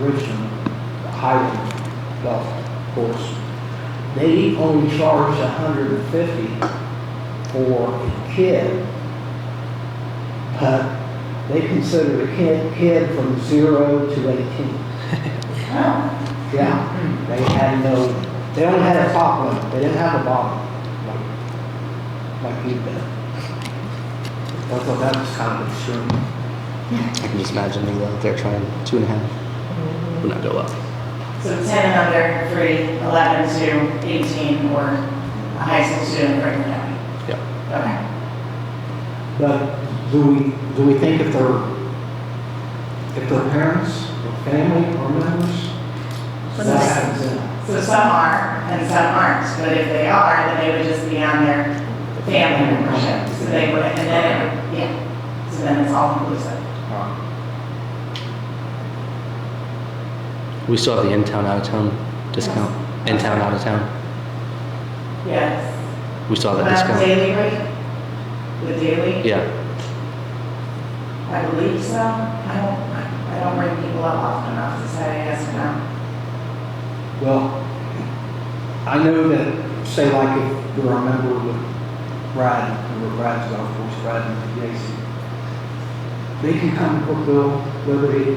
Richmond, the Highland Golf Course. They only charge a hundred and fifty for a kid. But they consider a kid, kid from zero to eighteen. Yeah, they had no, they only had a top limit, they didn't have a bottom, like, like you did. I thought that was kind of extreme. I can just imagine they go out there trying two and a half. Would not go up. So 10 and under, 3, 11 to 18, or a high school student, right now. Yeah. Okay. But do we, do we think if they're, if their parents or family or members? What's that? in. So some are and some aren't, but if they are, then they would just be on their family membership. So they would, and then, it would- yeah, so then it's all inclusive. We still have the in town, out of town discount. In town, out of town. Yes. We still have But that Oh, discount. Daily rate? The daily? Yeah. I believe so. I don't, I don't bring people up often enough to say yes or no. Well, I know that, say like if you're a member with Brad, or Brad's golf course, Brad and Jason, they can come to Brookville, Liberty,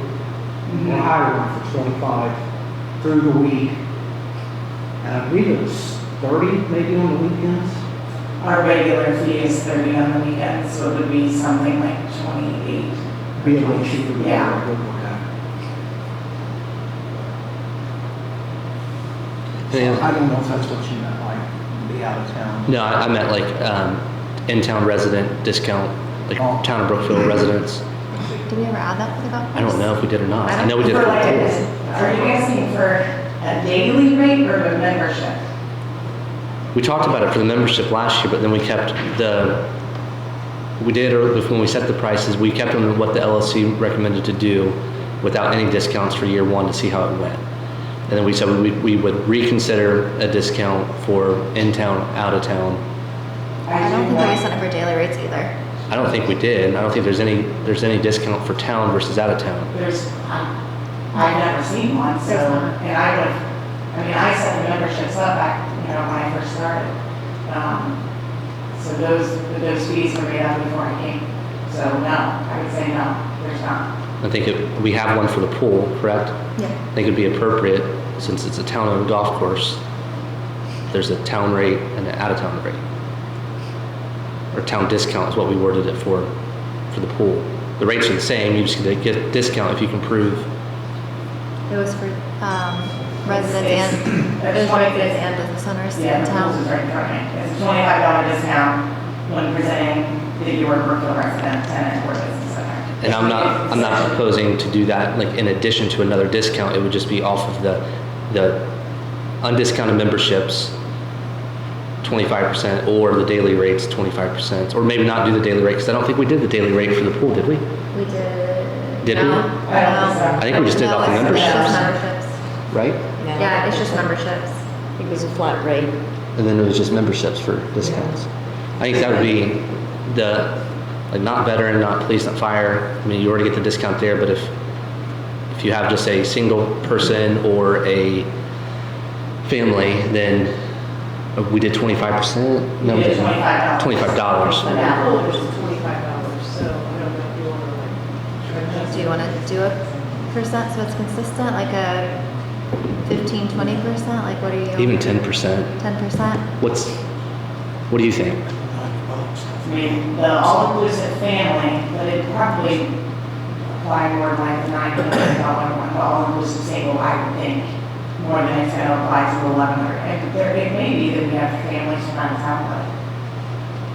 Mm-hmm. or Hiram for twenty-five through the week. And I believe it was thirty maybe on the weekends. Our regular fee is 30 on the weekend, so it would be something like 28. Be a little cheaper. than Yeah. what we're at. Yeah. I don't know if that's what you meant, like, be out of town. No, I, I meant like um, in town resident discount, like Oh. town of Brookfield residents. Did we ever add that for the golf I don't know if we did or not. I know we did. For like, it. a- are you asking for a daily rate or a membership? We talked about it for the membership last year, but then we kept the, we did, or when we set the prices, we kept them what the LLC recommended to do without any discounts for year one to see how it went. And then we said we, we would reconsider a discount for in-town, out-of-town. I don't think we that- set up our daily rates either. I don't think we did. I don't think there's any, there's any discount for town versus out-of-town. There's, I- I've never seen one, so, and I would, I mean, I set the memberships up back, you know, when I first started. Um, So those, those fees were made up before I came, so no, I would say no, there's not. I think it, we have one for the pool, correct? Yeah. I think it'd be appropriate, since it's a town-owned golf course, there's a town rate and an out-of-town rate. Or town discount is what we worded it for, for the pool. The rates are the same, you just get a get discount if you can prove, It was for um, residents It's- it's and, it was for twenty- residents and business owners Yeah, in the rules town. is right in front of me. It's a twenty-five dollar discount when presenting that you were a Brookfield resident, tenant, or business owner. and I'm not, I'm not proposing to do that, like, in addition to another discount, it would just be off of the, the undiscounted memberships, twenty-five percent, or the daily rates, twenty-five percent, or maybe not do the daily rate, because I don't think we did the daily rate for the pool, did we? We did. Did we? no, I don't think so. no. I think we just did No, off the it's- it's just Right? memberships. Yeah, it's just memberships. I think it was a flat rate. And then it was just memberships for discounts. I think that would be the, like, not veteran, not police, not fire. I mean, you already get the discount there, but if, if you have just a single person or a family, then uh, we did twenty-five percent? You did $25. $25. But that one was twenty-five dollars, so I don't know if you want to like. Do you want to do a percent so it's consistent, like a 15, 20 percent? Like what are you? Even ten percent. 10 percent? What's, what do you think? I mean, the all-inclusive family, but it probably apply more like the nine hundred dollar one, the all-inclusive single, I would think, more than it's gonna apply to eleven hundred. And there, it may be that we have families from out of town,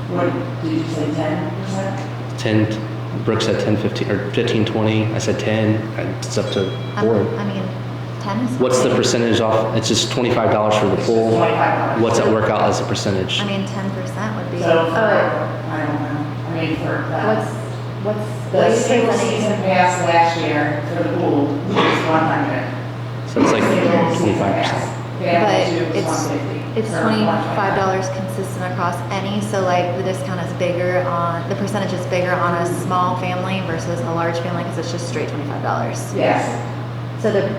but what, did you say ten percent? Ten, Brooke said ten, fifteen, or fifteen, twenty. I said ten. I- It's up to I board. don't- I mean, 10 is. What's the fine. percentage off? It's just twenty-five dollars for the pool. Twenty-five dollars. What's that work out as a percentage? I mean, 10% would be. Oh, So, for, I don't know, I mean, for that. what's The single season pass last year for the pool was one hundred. So it's like twenty-five percent. But Family two it's, was one fifty. it's twenty-five dollars consistent across any, so like the discount is bigger on, the percentage is bigger on a small family versus a large family, because it's just straight twenty-five dollars. Yes. So the